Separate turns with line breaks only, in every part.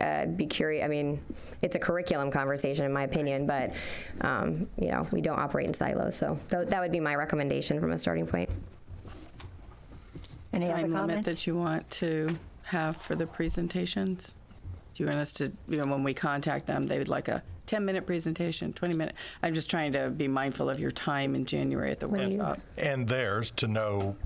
I'd be curious. I mean, it's a curriculum conversation, in my opinion, but, um, you know, we don't operate in silos. So tho- that would be my recommendation from a starting point.
Any other
time limit
comments?
that you want to have for the presentations? Do you want us to, you know, when we contact them, they would like a 10-minute presentation, 20-minute? I'm just trying to be mindful of your time in January at the
do you-
workshop.
and theirs to know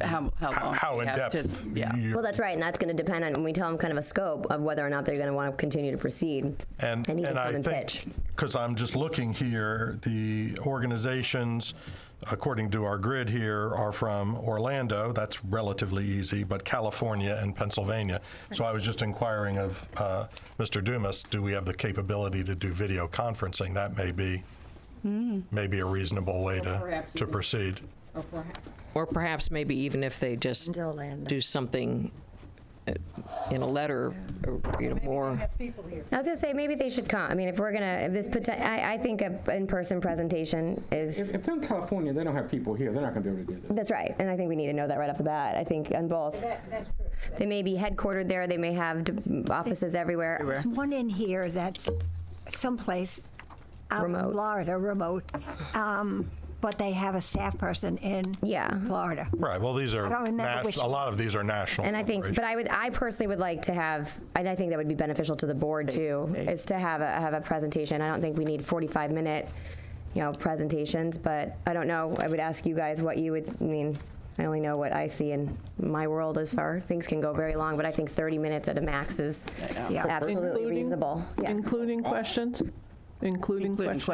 How, how long?
how
we
in
have to-
depth.
Yeah.
you-
Well, that's right, and that's going to depend on, when we tell them kind of a scope of whether or not they're going to want to continue to proceed.
And,
They need to
and
come
I
and
think,
pitch.
because I'm just looking here, the organizations, according to our grid here, are from Orlando, that's relatively easy, but California and Pennsylvania. So I was just inquiring of uh, Mr. Dumas, do we have the capability to do video conferencing? That may be,
Hmm.
may be a reasonable way to,
perhaps
to
even-
proceed.
Or perhaps,
Or perhaps maybe even if they just
Orlando.
do something uh, in a letter, or, you know, more.
I was going to say, maybe they should come, I mean, if we're going to, if this, poten- I, I think a in-person presentation
if
is,
if they're in California, they don't have people here, they're not gonna be able to do that.
that's right, and I think we need to know that right off the bat, I think, on both. That's true. They may be headquartered there, they may have d- offices everywhere.
There's one in here that's someplace out in
Remote.
Florida, remote, um, but they have a staff person in
Yeah.
Florida.
Right, well, these are,
I don't remember
nas-
which-
a lot of these are national.
And I think, but I would, I personally would like to have, and I think that would be beneficial to the board too, is to have a, have a presentation. I don't think we need forty-five minute, you know, presentations, but I don't know. I would ask you guys what you would, I mean, I only know what I see in my world as far, things can go very long, but I think thirty minutes at a max is
Yeah.
absolutely
Including-
reasonable. Yeah.
Including questions? Including
Including
questions?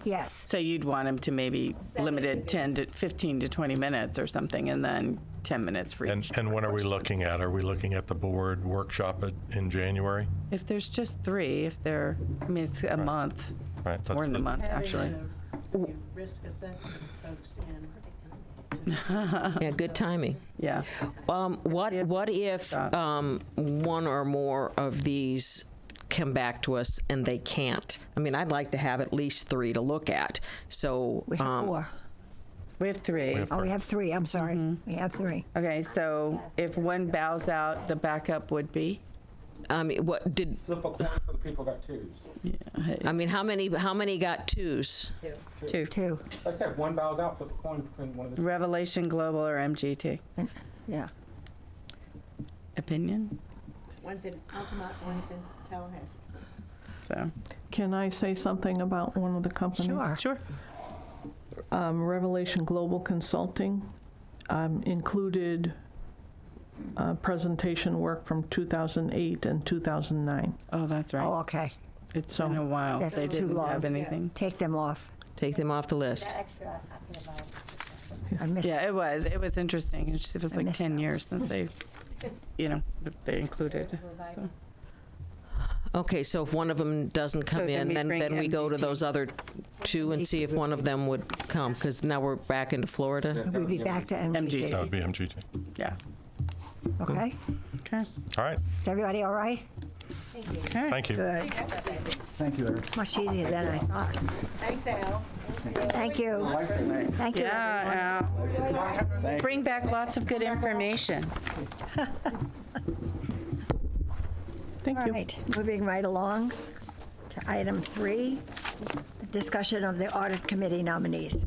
questions.
Yes.
So you'd want them to maybe limited 10 to 15 to 20 minutes or something, and then 10 minutes for
And,
each.
and when are we looking at? Are we looking at the board workshop at- in January?
If there's just three, if they're, I mean, it's a month.
Right,
It's
that's
more than a
the-
month, actually.
risk assessment folks in.
Yeah, good timing.
Yeah.
Um, what what if um, one or more of these come back to us and they can't? I mean, I'd like to have at least three to look at. So um,
We have four.
We have three.
Oh, we have three, I'm sorry. We have three.
Okay, so if one bows out, the backup would be?
I mean, what did
Flip a coin for the people that got twos.
I mean? How many how many got twos?
Two.
Two,
Like I said, one bows out, flip a coin between one of the.
Revelation Global or MGT?
yeah.
Opinion?
One's in Altamont, one's in Tallahassee.
So,
Can I say something about one of the companies?
Sure.
sure.
Um, Revelation Global Consulting um, included uh, presentation work from 2008 and 2009.
Oh, that's
Oh,
right.
okay.
It's been a while.
That's
They
too
didn't
long.
have anything.
Take them off.
Take them off the list.
I missed,
Yeah, it was. It was interesting. It just- it was
I
like
missed
10 years since they, you know, that they included. so.
Okay, so if one of them doesn't come
then
in,
we
then,
bring E
then we go to
MDT.
those other two and see if one of them would come, because now we're back into Florida.
we'd be back to
MGT.
MGT,
That would be MGT.
Yeah.
okay?
Okay.
All right,
Is everybody all right?
Okay.
thank you.
Good.
Thank you, Eric.
Much easier than I thought.
Thanks, Al.
Thank you. Thank you, everyone.
Yeah, Al. Bring back lots of good information.
Thank
All
you.
right, moving right along to item three, discussion of the audit committee nominees.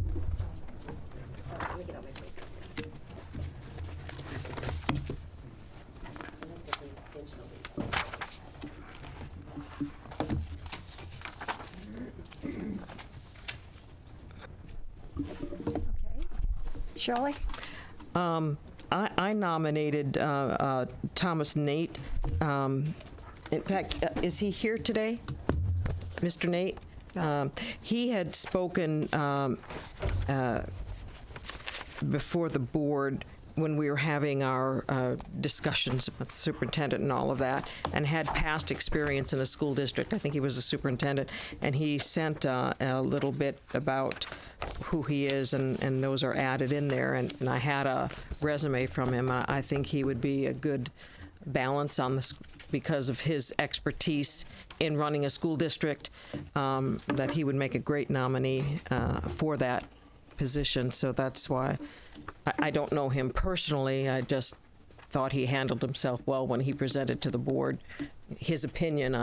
Okay, Shirley?
Um, I, I nominated uh, uh, Thomas Nate. Um, in fact, uh, is he here today? Mr. Nate? Um, he had spoken um, before the board when we were having our uh, discussions with the superintendent and all of that, and had past experience in a school district. I think he was a superintendent, and he sent uh, a little bit about who he is, and, and those are added in there. And, and I had a resume from him. I, I think he would be a good balance on this because of his expertise in running a school district, um, that he would make a great nominee uh, for that position, so that's why I, I don't know him personally. I just thought he handled himself well when he presented to the board his opinion